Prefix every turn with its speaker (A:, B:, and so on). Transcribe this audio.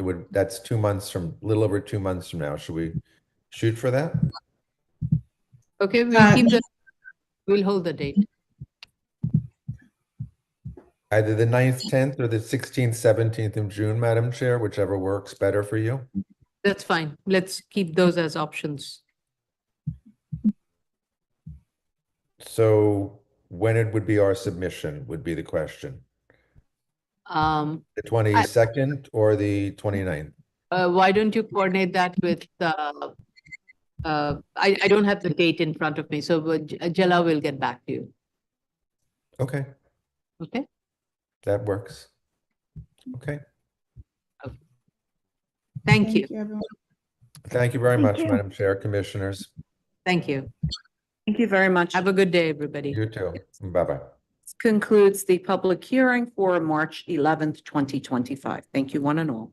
A: would, that's two months from, a little over two months from now. Should we shoot for that?
B: Okay,
C: Uh,
B: we'll keep the, we'll hold the date.
A: Either the 9th, tenth, or the sixteenth, seventeenth of June, Madam Chair, whichever works better for you.
B: That's fine. Let's keep those as options.
A: So when it would be our submission would be the question.
B: Um,
A: The twenty-second or the 29th?
B: uh, why don't you coordinate that with, uh, uh, I, I don't have the date in front of me, so uh, J- uh, Jella will get back to you.
A: Okay,
B: Okay?
A: that works. Okay,
B: Thank you.
C: everyone.
A: thank you very much,
D: you.
A: Madam Chair, Commissioners.
B: Thank you.
D: Thank you very much.
B: Have a good day, everybody.
A: You too. Bye-bye.
D: This concludes the public hearing for March eleventh, twenty twenty-five. Thank you, one and all.